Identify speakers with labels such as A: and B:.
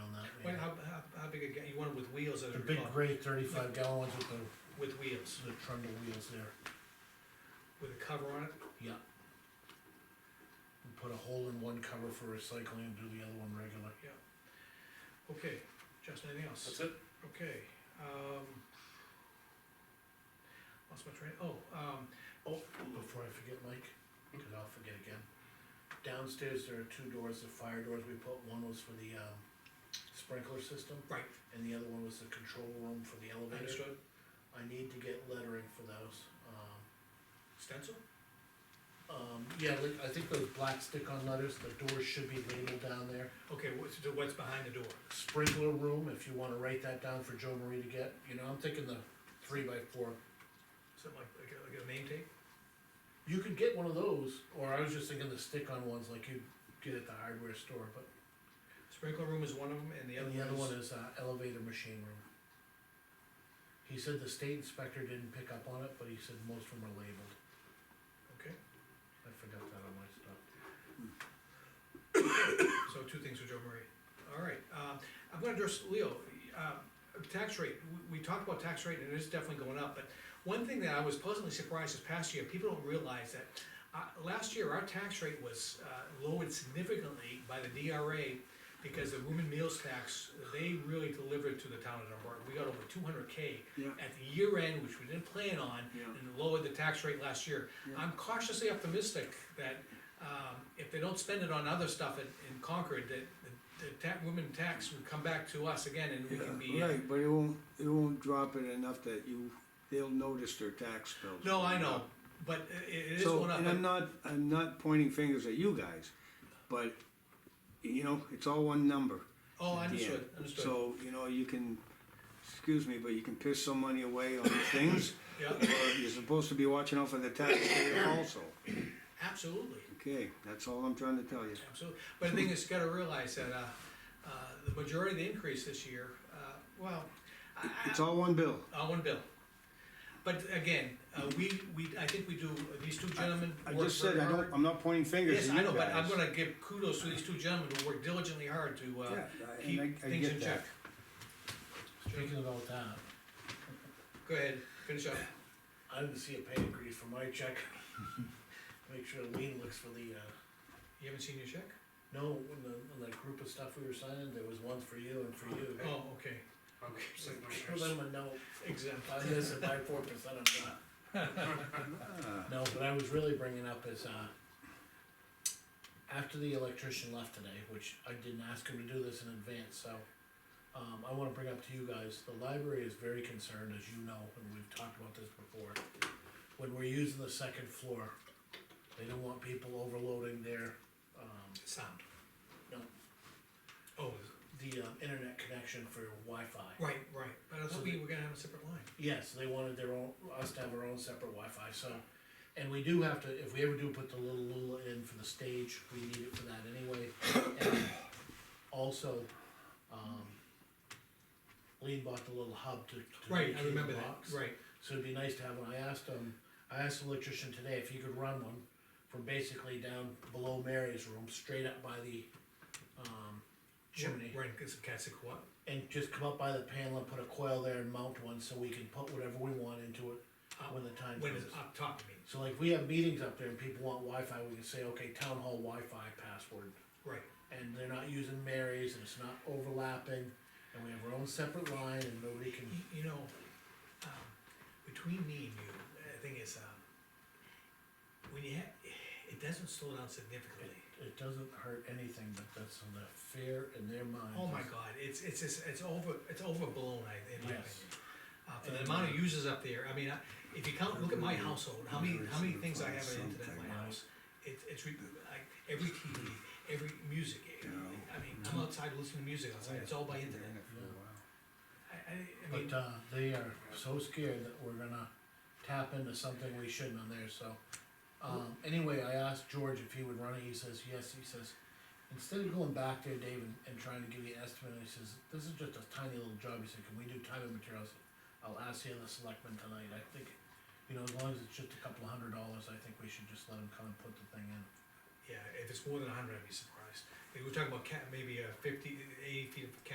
A: bigger, ga- you want it with wheels, as
B: The
A: I
B: big
A: recall,
B: gray thirty-five gallon ones with the,
A: with wheels,
B: the trundle wheels there,
A: with a cover on it,
B: yeah. We put a hole in one cover for recycling and do the other one regular.
A: okay, Justin, anything else?
C: That's it.
A: Okay, um. Lost my train, oh, um,
B: Oh, before I forget, Mike, cause I'll forget again. Downstairs, there are two doors, the fire doors we put, one was for the, um, sprinkler system,
A: right,
B: and the other one was the control room for the elevator.
A: understood,
B: I need to get lettering for those, um,
A: stencil,
B: Um, yeah, like, I think those black stick-on letters, the doors should be labeled down there.
A: okay, what's, so what's behind the door?
B: Sprinkler room, if you wanna write that down for Joe Marie to get, you know, I'm thinking the three by four.
A: Something like, like a- like a name tape?
B: You could get one of those, or I was just thinking the stick-on ones like you get at the hardware store, but
A: Sprinkler room is one of them, and the
B: the
A: other
B: other one
A: one
B: is,
A: is,
B: uh, elevator machine room. He said the state inspector didn't pick up on it, but he said most of them are labeled.
A: okay,
B: I forgot that on my stuff.
A: so two things with Joe Marie, all right, um, I'm gonna address, Leo, um, tax rate, we, we talked about tax rate, and it is definitely going up, but one thing that I was pleasantly surprised this past year, people don't realize that, uh, last year, our tax rate was, uh, lowered significantly by the DRA, because the room and meals tax, they really delivered to the town of Dunbar, we got over two hundred K
C: Yeah.
A: at the year end, which we didn't plan on,
C: Yeah.
A: and lowered the tax rate last year.
C: Yeah.
A: I'm cautiously optimistic that, um, if they don't spend it on other stuff in, in Concord, that, the, the ta- women tax will come back to us again and we can be.
D: Yeah,
A: uh,
D: Right, but it won't, it won't drop it enough that you, they'll notice their tax bills.
A: No, I
D: going
A: know,
D: up.
A: but i- it is
D: So,
A: going up,
D: and I'm
A: but
D: not, I'm not pointing fingers at you guys, but, you know, it's all one number.
A: oh,
D: at the
A: understood,
D: end.
A: understood,
D: So, you know, you can, excuse me, but you can piss some money away on things,
A: yeah,
D: but you're supposed to be watching out for the taxpayer also.
A: absolutely.
D: Okay, that's all I'm trying to tell you.
A: Absolutely, but the thing is, you gotta realize that, uh, uh, the majority of the increase this year, uh, well, I, I-
D: It's all one bill.
A: on Uh, one bill. But again, uh, we, we, I think we do, uh, these two gentlemen
D: I
A: work
D: just said,
A: very
D: I
A: hard.
D: don't, I'm not pointing fingers at
A: Yes,
D: you
A: I know, but I'm
D: guys.
A: gonna give kudos to these two gentlemen who work diligently hard to, uh,
D: Yeah, I- and I- I
A: keep things
D: get
A: in
D: that.
A: check.
B: Speaking about that,
A: Go ahead, finish up.
B: I didn't see a pay increase for my check. Make sure Lean looks for the, uh,
A: You haven't seen your check?
B: No, when the, when that group of stuff we were signing, there was one for you and for you.
A: Oh, okay,
B: Give them a note,
A: exempt.
B: I guess if I four percent of that. No, but I was really bringing up is, uh, after the electrician left today, which I didn't ask him to do this in advance, so. Um, I wanna bring up to you guys, the library is very concerned, as you know, and we've talked about this before. When we're using the second floor, they don't want people overloading their, um,
A: Sound.
B: No.
A: Oh,
B: the, um, internet connection for Wi-Fi.
A: right, right, but I thought we were gonna have a separate line.
B: Yes, they wanted their own, us to have our own separate Wi-Fi. so. And we do have to, if we ever do put the little Lula in for the stage, we need it for that anyway. And Also, um, Lean bought the little hub to. to
A: Right, I
B: locate the
A: remember that,
B: box.
A: right,
B: So it'd be nice to have one, I asked him, I asked the electrician today if he could run one from basically down below Mary's room, straight up by the, um, chimney
A: right, cause cats are what?
B: and just come up by the panel and put a coil there and mount one so we can put whatever we want into it when the time
A: When uh,
B: comes.
A: it's up top, I mean,
B: So like we have meetings up there and people want Wi-Fi, we can say, okay, town hall Wi-Fi password.
A: right,
B: And they're not using Mary's and it's not overlapping and we have our own separate line and nobody can,
A: Y- you know, um, between me and you, the thing is, um, when you ha- it doesn't slow down significantly.
B: it doesn't hurt anything, but that's in the fear in their mind.
A: Oh my god, it's, it's, it's, it's over, it's overblown, I, in my opinion.
B: Yes.
A: Uh, for the amount of users up there, I mean, I- if you count, look at my household, how many, how many things I have on internet in my house? It, it's, re- like, every TV, every music, eh, I mean,
B: Mm-hmm.
A: I'm outside listening to music, outside, it's all by internet. I, I, I mean,
B: But uh, they are so scared that we're gonna tap into something we shouldn't on there, so. Um, anyway, I asked George if he would run it, he says, yes, he says, instead of going back there, Dave, and, and trying to give you an estimate, he says, this is just a tiny little job, he said, can we do time and materials? I'll ask the other selectmen tonight, I think, you know, as long as it's just a couple of hundred dollars, I think we should just let him come and put the thing in.
A: yeah, if it's more than a hundred, I'd be surprised. They were talking about cat, maybe uh, fifty, eighty feet of cat